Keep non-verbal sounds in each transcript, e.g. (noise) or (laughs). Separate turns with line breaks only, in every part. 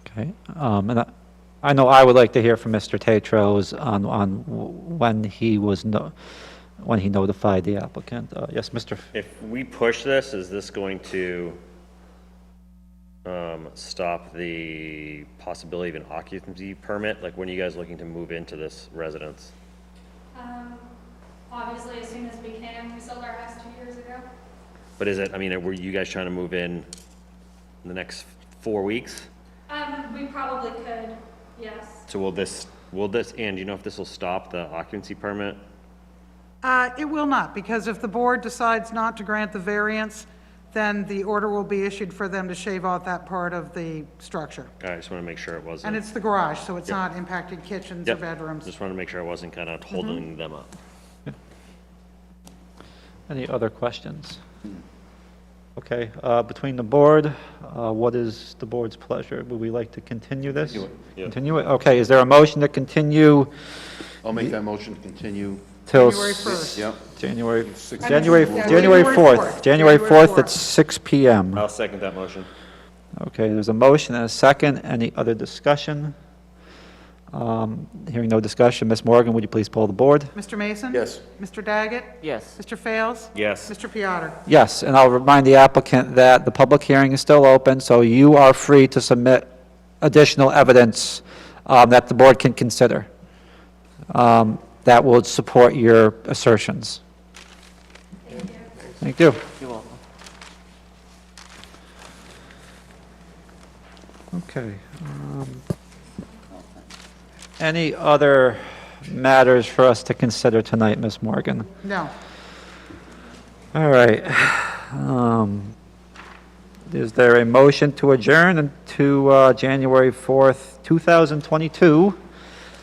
Okay, um, and I, I know I would like to hear from Mr. Tetros on, on w- when he was, no- when he notified the applicant. Uh, Yes, Mr., F-
If we push this, is this going to um, stop the possibility of an occupancy permit? Like, when are you guys looking to move into this residence?
Um, Obviously, as soon as we can, we sold our house two years ago.
But is it, I mean, were you guys trying to move in in the next four weeks?
Um, we probably could, yes.
So will this, will this, and do you know if this will stop the occupancy permit?
Uh, It will not, because if the board decides not to grant the variance, then the order will be issued for them to shave off that part of the structure.
I just want to make sure it wasn't.
And it's the garage, so it's not impacting kitchens or
Yep.
bedrooms. Mm-hmm.
Just want to make sure I wasn't kind of holding them up.
any other questions? Okay, uh, between the board, uh, what is the board's pleasure? Would we like to continue this? Continue it,
yeah.
okay, is there a motion to continue
I'll make that motion to continue.
till?
January
s-
1st.
Yep.
January,
Six-
January,
Yeah,
January
January
4th,
fourth.
January
January
4th at
fourth.
6 PM.
I'll second that motion.
Okay, there's a motion and a second. Any other discussion? Um, Hearing no discussion, Ms. Morgan, would you please poll the board?
Mr. Mason?
Yes.
Mr. Daggett?
Yes,
Mr. Fails?
Yes.
Mr. Piattar?
Yes, and I'll remind the applicant that the public hearing is still open, so you are free to submit additional evidence um, that the board can consider um, that will support your assertions. Thank you.
you're welcome.
Okay. um, Any other matters for us to consider tonight, Ms. Morgan?
No.
All right. Um, Is there a motion to adjourn into uh, January 4th, 2022?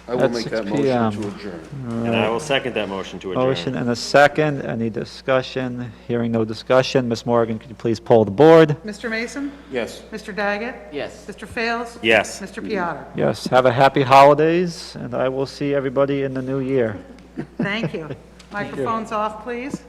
I will
At
make
6
that
PM.
motion to adjourn.
And I will second that motion to adjourn.
Motion and a second. Any discussion? Hearing no discussion. Ms. Morgan, could you please poll the board?
Mr. Mason?
Yes.
Mr. Daggett?
Yes.
Mr. Fails?
Yes.
Mr. Piattar?
Yes, have a happy holidays, and I will see everybody in the new year.
(laughs)
Thank you. Microphones off, please.